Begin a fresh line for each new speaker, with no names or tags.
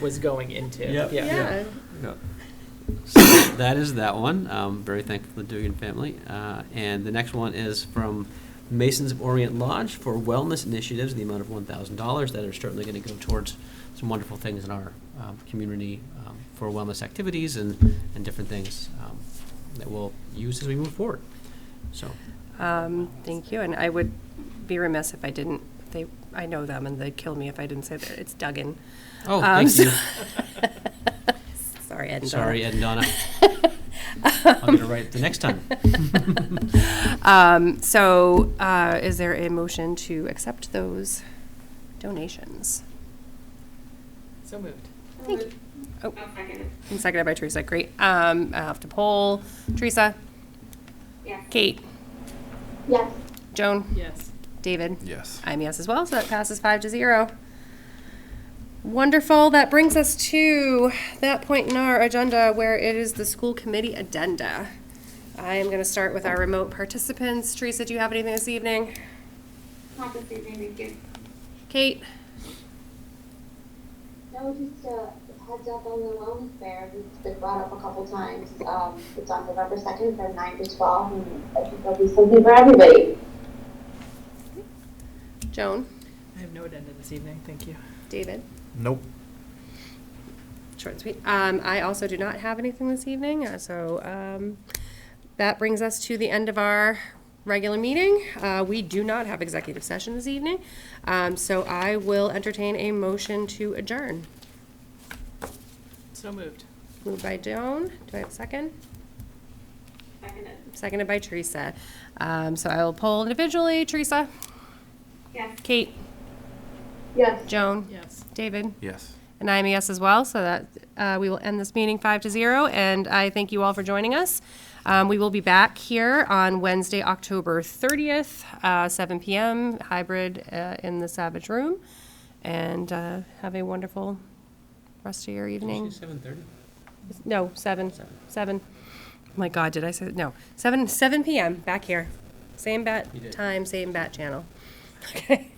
was going into.
Yep.
Yeah.
Yeah.
Yeah. So that is that one. Um, very thankful to the Dugan family. Uh, and the next one is from Masons of Orient Lodge for wellness initiatives, in the amount of one thousand dollars that are certainly going to go towards some wonderful things in our um, community um, for wellness activities and, and different things um, that we'll use as we move forward. So
Um, Thank you, and I would be remiss if I didn't, they, I know them, and they'd kill me if I didn't say that, it's Duggan.
Oh,
Um,
thank you.
Sorry, Ed and Donna.
sorry, Ed and Donna. I'll get it right the next time.
Um, So uh, is there a motion to accept those donations?
So moved.
Thank you. Oh, and seconded by Teresa, great. Um, I'll have to poll. Teresa?
Yes.
Kate?
Yes.
Joan?
Yes.
David?
Yes.
I'm yes as well, so that passes five to zero. Wonderful. That brings us to that point in our agenda where it is the school committee addenda. I am going to start with our remote participants. Teresa, do you have anything this evening?
Not this evening, thank you.
Kate?
No, just a heads up on the wellness fair. It's been brought up a couple times. Um, it's on November second from nine to twelve, and I think there'll be something for everybody.
Joan?
I have no addenda this evening. Thank you.
David?
Nope.
Short and sweet. Um, I also do not have anything this evening, uh, so um, that brings us to the end of our regular meeting. Uh, we do not have executive session this evening, um, so I will entertain a motion to adjourn.
So moved.
Moved by Joan. Do I have a second?
Seconded.
Seconded by Teresa. Um, so I will poll individually. Teresa,
Yes.
Kate,
Yes.
Joan,
Yes.
David,
Yes.
and I'm a yes as well. So that uh, we will end this meeting five to zero. And I thank you all for joining us. Um, we will be back here on Wednesday, October 30th, uh, 7 p.m. Hybrid uh, in the Savage Room. And uh, have a wonderful rest of your evening.
Seven thirty.
No, seven, seven. My God, did I say, no, seven, seven PM, back here. Same bat
You did.
time, same bat channel. Okay.